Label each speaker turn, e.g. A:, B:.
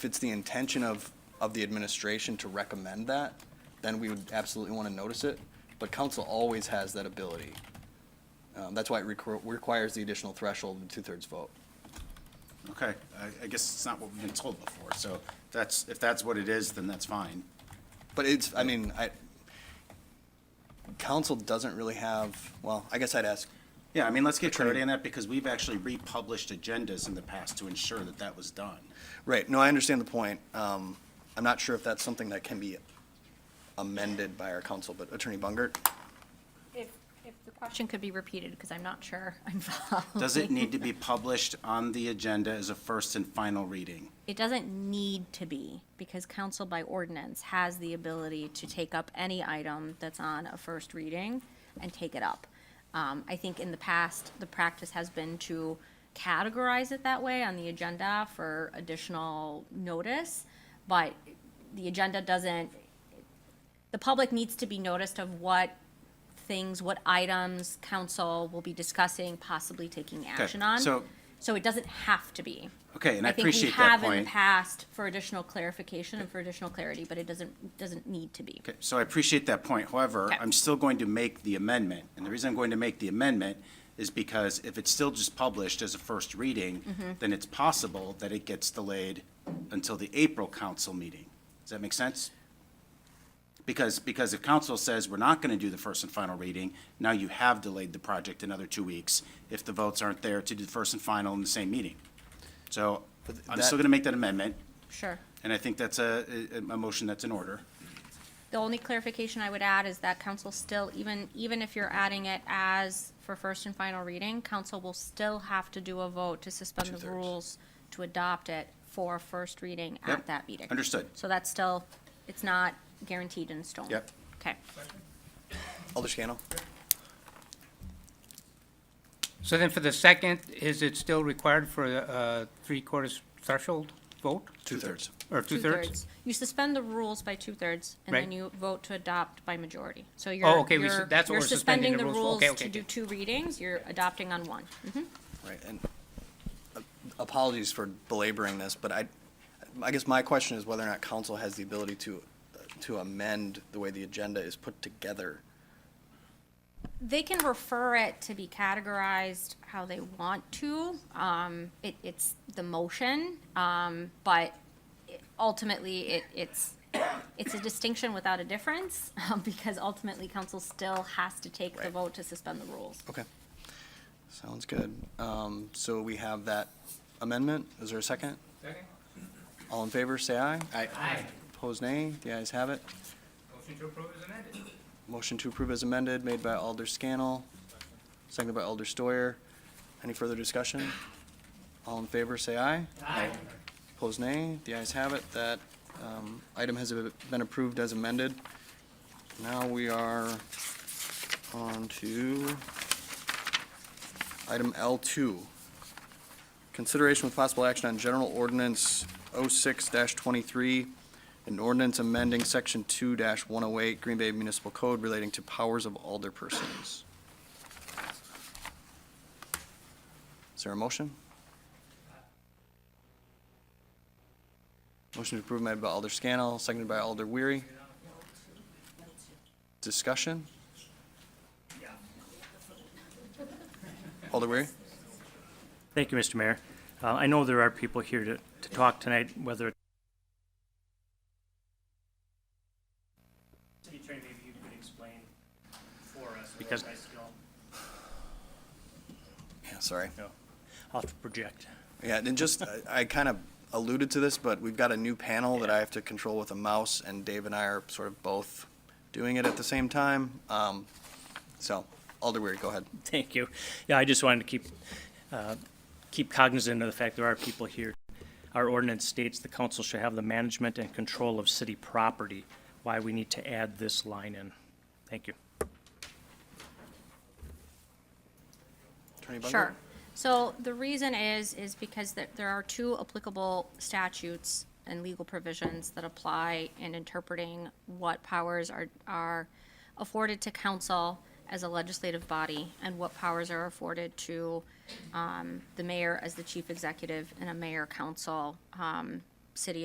A: if it's the intention of, of the administration to recommend that, then we would absolutely want to notice it, but council always has that ability. Um, That's why it requ- requires the additional threshold and two-thirds vote.
B: Okay, I, I guess it's not what we've been told before, so that's, if that's what it is, then that's fine.
A: But it's, I mean, I, council doesn't really have, well, I guess I'd ask,
B: Yeah, I mean, let's get
A: Attorney-
B: clarity on that, because we've actually republished agendas in the past to ensure that that was done.
A: right, no, I understand the point. Um, I'm not sure if that's something that can be amended by our council, but Attorney Bungert?
C: If, if the question could be repeated, because I'm not sure I'm following.
B: Does it need to be published on the agenda as a first and final reading?
C: It doesn't need to be, because council by ordinance has the ability to take up any item that's on a first reading and take it up. Um, I think in the past, the practice has been to categorize it that way on the agenda for additional notice, but the agenda doesn't, the public needs to be noticed of what things, what items council will be discussing, possibly taking action on.
B: so-
C: So it doesn't have to be.
B: Okay, and I
C: think we
B: appreciate that
C: have in the
B: point.
C: Past for additional clarification and for additional clarity, but it doesn't, doesn't need to be.
B: Okay, so I appreciate that point. However,
C: Okay.
B: I'm still going to make the amendment. And the reason I'm going to make the amendment is because if it's still just published as a first reading, then it's possible that it gets delayed until the April council meeting. Does that make sense? Because, because if council says we're not going to do the first and final reading, now you have delayed the project another two weeks if the votes aren't there to do the first and final in the same meeting. So I'm
A: that-
B: still going to make that amendment,
C: Sure.
B: and I think that's a, a, a motion that's in order.
C: The only clarification I would add is that council still, even, even if you're adding it as for first and final reading, council will still have to do a vote to suspend the
A: Two-thirds.
C: rules to adopt it for first reading
B: Yep,
C: at that meeting.
B: understood.
C: So that's still, it's not guaranteed in stone.
B: Yep.
C: Okay.
A: Alder Scannell?
D: So then for the second, is it still required for a three-quarters threshold vote
B: Two-thirds.
D: or two-thirds?
C: You suspend the rules by two-thirds, and then
D: Right.
C: you vote to adopt by majority. So you're,
D: Oh, okay, we su-
C: you're,
D: that's what
C: you're
D: we're suspending
C: suspending the
D: the rules for.
C: rules to
D: Okay, okay,
C: do
D: okay.
C: two readings, you're adopting on one.
A: Right, and uh, apologies for belaboring this, but I, I guess my question is whether or not council has the ability to, to amend the way the agenda is put together.
C: They can refer it to be categorized how they want to. Um, it, it's the motion, um, but it- ultimately, it, it's, it's a distinction without a difference, because ultimately, council still has to take the
A: Right.
C: vote to suspend the rules.
A: Okay. Sounds good. Um, so we have that amendment. Is there a second?
D: Second.
A: All in favor, say aye. Aye.
D: Aye.
A: Opposed, nay. The ayes have it.
D: Motion to approve is amended.
A: Motion to approve as amended, made by Alder Scannell, seconded by Alder Steyer. Any further discussion? All in favor, say aye.
D: Aye.
A: Opposed, nay. The ayes have it. That um, item has been approved as amended. Now we are on to item L2. Consideration with possible action on General Ordinance 06-23, an ordinance amending Section 2-108 Green Bay Municipal Code relating to powers of alderpersons. Is there a motion? Motion to approve made by Alder Scannell, seconded by Alder Weary. Discussion? Alder Weary?
E: Thank you, Mr. Mayor. Uh, I know there are people here to, to talk tonight, whether. City Attorney, maybe you could explain for us.
B: Because-
E: I still-
A: Yeah, sorry.
E: I'll have to project.
A: Yeah, and just, I- I kind of alluded to this, but we've got a new panel that I have to control with a mouse, and Dave and I are sort of both doing it at the same time. Um, So, Alder Weary, go ahead.
E: Thank you. Yeah, I just wanted to keep, uh, keep cognizant of the fact there are people here. Our ordinance states the council shall have the management and control of city property. Why we need to add this line in. Thank you.
A: Attorney Bungert?
C: Sure. So the reason is, is because there, there are two applicable statutes and legal provisions that apply in interpreting what powers are, are afforded to council as a legislative body and what powers are afforded to, um, the mayor as the chief executive and a mayor council, um, city